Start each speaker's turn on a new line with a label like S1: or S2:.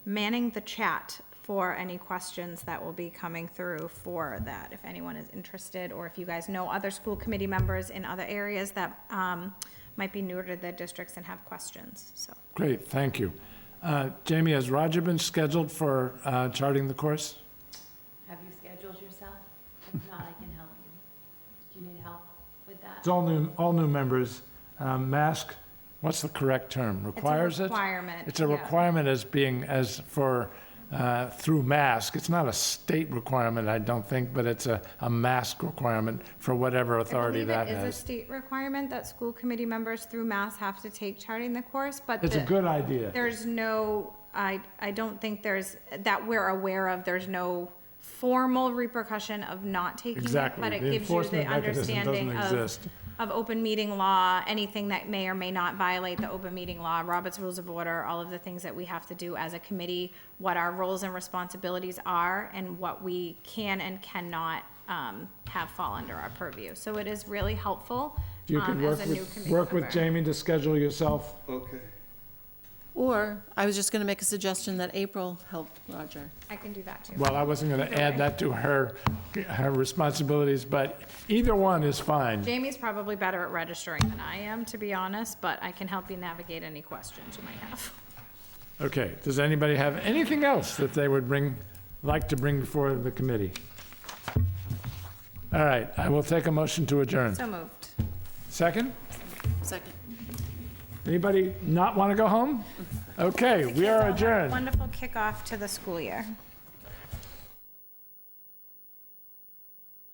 S1: manning the chat for any questions that will be coming through for that, if anyone is interested, or if you guys know other school committee members in other areas that um, might be newer to the districts and have questions, so.
S2: Great, thank you. Uh, Jamie, has Roger been scheduled for uh, charting the course?
S3: Have you scheduled yourself? If not, I can help you. Do you need help with that?
S2: It's all new, all new members. Um, Mask, what's the correct term?
S1: It's a
S2: Requires it?
S1: Requirement.
S2: It's a
S1: yeah.
S2: requirement as being, as for, uh, through mask. It's not a state requirement, I don't think, but it's a, a mask requirement for whatever authority that
S1: I believe it
S2: has.
S1: is a state requirement that school committee members through Mass have to take charting the course, but
S2: It's a
S1: the-
S2: good idea.
S1: there's no, I, I don't think there's, that we're aware of, there's no formal repercussion of not taking it,
S2: Exactly.
S1: but it gives you
S2: The
S1: the
S2: enforcement mechanism
S1: understanding
S2: doesn't
S1: of,
S2: exist.
S1: of open meeting law, anything that may or may not violate the open meeting law, Robert's Rules of Order, all of the things that we have to do as a committee, what our roles and responsibilities are, and what we can and cannot, um, have fall under our purview. So it is really helpful,
S2: You could
S1: um, as
S2: work
S1: a new
S2: with,
S1: committee
S2: work with
S1: member.
S2: Jamie to schedule yourself.
S4: Okay.
S5: Or, I was just gonna make a suggestion that April help Roger.
S1: I can do that too.
S2: Well, I wasn't going to add that to her, her responsibilities, but either one is fine.
S1: Jamie's probably better at registering than I am, to be honest, but I can help you navigate any questions you might have.
S2: Okay, does anybody have anything else that they would bring, like to bring before the committee? All right, I will take a motion to adjourn.
S1: So moved.
S2: Second?
S5: Second.
S2: Anybody not want to go home? Okay, we are adjourned.
S1: Wonderful kickoff to the school year.